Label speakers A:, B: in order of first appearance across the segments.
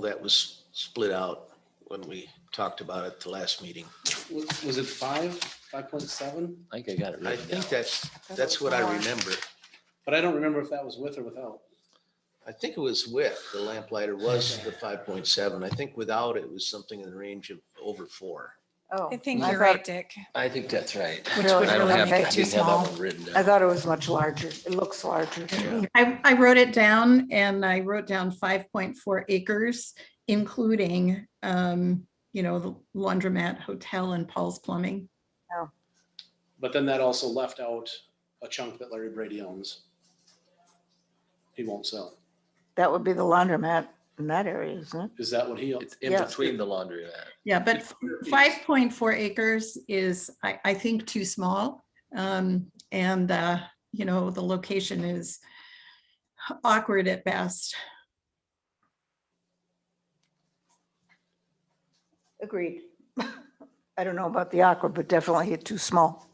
A: that was split out when we talked about it the last meeting.
B: Wa- Was it five, five point seven?
C: I think I got it
A: I
C: written down.
A: think that's, that's what I remember.
B: But I don't remember if that was with or without.
A: I think it was with, the lamplighter was the five point seven. I think without it was something in the range of over four.
D: Oh,
E: I think
D: I
E: you're
D: thought-
E: right, Dick.
C: I think that's right.
D: Which
C: But
D: would
C: I don't
D: really
C: have-
D: make
C: I
D: it
C: didn't
D: too
C: have that
D: small.
C: one Written
D: I
C: down.
D: thought it was much larger. It looks larger to me.
E: I, I wrote it down and I wrote down five point four acres, including, um, you know, the laundromat, hotel and Paul's Plumbing.
B: But then that also left out a chunk that Larry Brady owns. He won't sell.
D: That would be the laundromat in that area, isn't it?
B: Is that what he,
C: It's in
D: Yeah.
C: between the laundry mat.
E: Yeah, but five point four acres is, I, I think, too small. Um, and, uh, you know, the location is awkward at best.
D: Agreed. I don't know about the aqua, but definitely too small.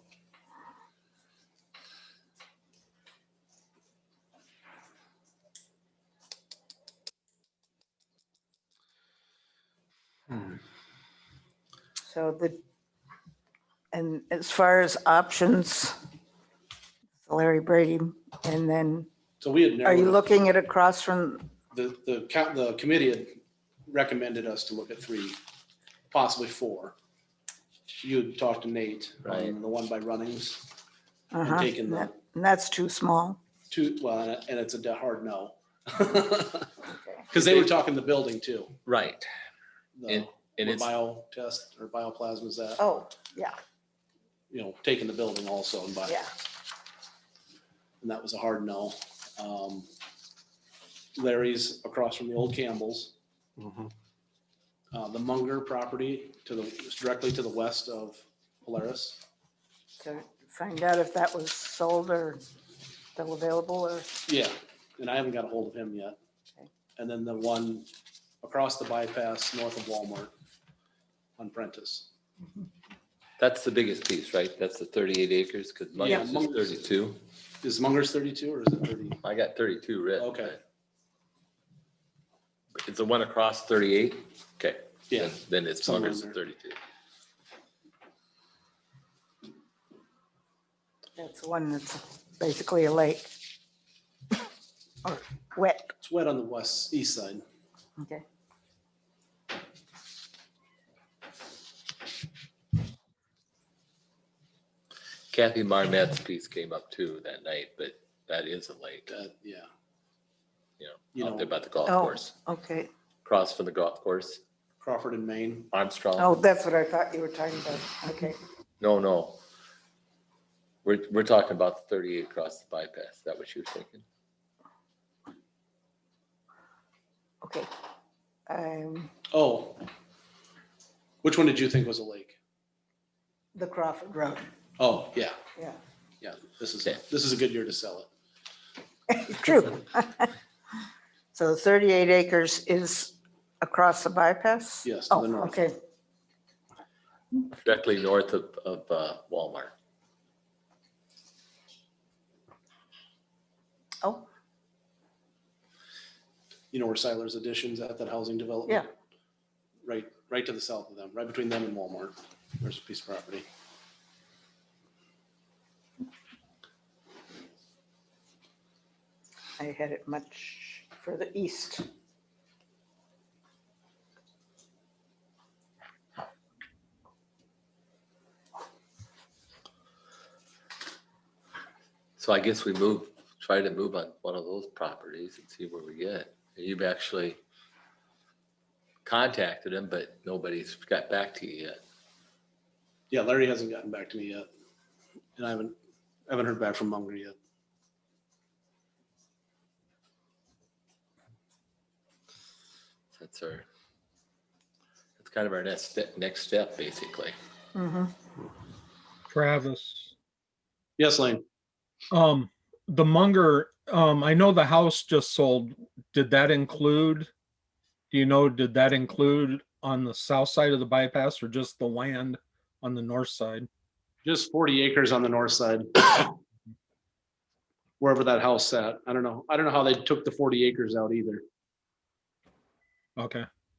D: So the, and as far as options, Larry Brady, and then
B: so we had
D: are you
B: narrowed,
D: looking at across from,
B: the, the, co- the committee had recommended us to look at three, possibly four. You had talked to Nate on
C: Right.
B: the one by Runnings and
D: uh-huh,
B: taken
D: and
B: the
D: that- and that's too small?
B: two, well, and it- and it's a de- hard no. Because they were talking the building too.
C: Right.
B: the-
C: And- And
B: or
C: it's,
B: bio test or bioplasma is that,
D: Oh, yeah,
B: you know, taking the building also and bio.
D: yeah.
B: And that was a hard no. Um, Larry's across from the old Campbell's, uh, the Munger property to the, directly to the west of Polaris.
D: to find out if that was sold or still available or,
B: Yeah, and I haven't got a hold of him yet.
D: Okay.
B: And then the one across the bypass north of Walmart on Prentice.
C: that's the biggest piece, right? That's the thirty-eight acres, because
B: Yeah.
C: Munger's is thirty-two.
B: Is Munger's thirty-two or is it thirty?
C: I got thirty-two written.
B: Okay.
C: but It's the one across thirty-eight? Okay.
B: Yeah,
C: then- Then it's
B: somewhere
C: Munger's
B: in there.
C: thirty-two.
D: that's the one that's basically a lake. Or wet,
B: it's wet on the west, east side.
D: okay.
C: Kathy Marmette's piece came up too that night, but that is a lake,
B: Uh, yeah.
C: you
B: You
C: know, out
B: know.
C: there about the golf
D: Oh.
C: course,
D: Okay,
C: across from the golf course,
B: Crawford and Maine.
C: Armstrong.
D: oh, that's what I thought you were talking about, okay.
C: No, no. We're, we're talking about the thirty-eight across the bypass. Is that what you were thinking?
D: Okay. Um,
B: Oh. Which one did you think was a lake?
D: the Crawford Road,
B: Oh, yeah,
D: yeah,
B: yeah. This is,
C: Okay.
B: this is a good year to sell it.
D: true. So thirty-eight acres is across the bypass?
B: Yes, to
D: Oh,
B: the north.
D: okay,
C: Directly north of, of uh, Walmart.
D: oh,
B: You know where Siler's Additions at, that housing development?
D: Yeah.
B: Right, right to the south of them, right between them and Walmart. There's a piece of property.
D: I had it much further east.
C: So I guess we move, try to move on one of those properties and see where we get. You've actually contacted him, but nobody's got back to you yet.
B: Yeah, Larry hasn't gotten back to me yet. And I haven't, I haven't heard back from Munger yet.
C: That's our, that's kind of our next, step- next step, basically.
D: Mm-hmm.
F: Travis.
B: Yes, Lane,
F: Um, the Munger, um, I know the house just sold. Did that include? Do you know, did that include on the south side of the bypass or just the land on the north side?
B: just forty acres on the north side. Wherever that house sat. I don't know. I don't know how they took the forty acres out either.
F: Okay,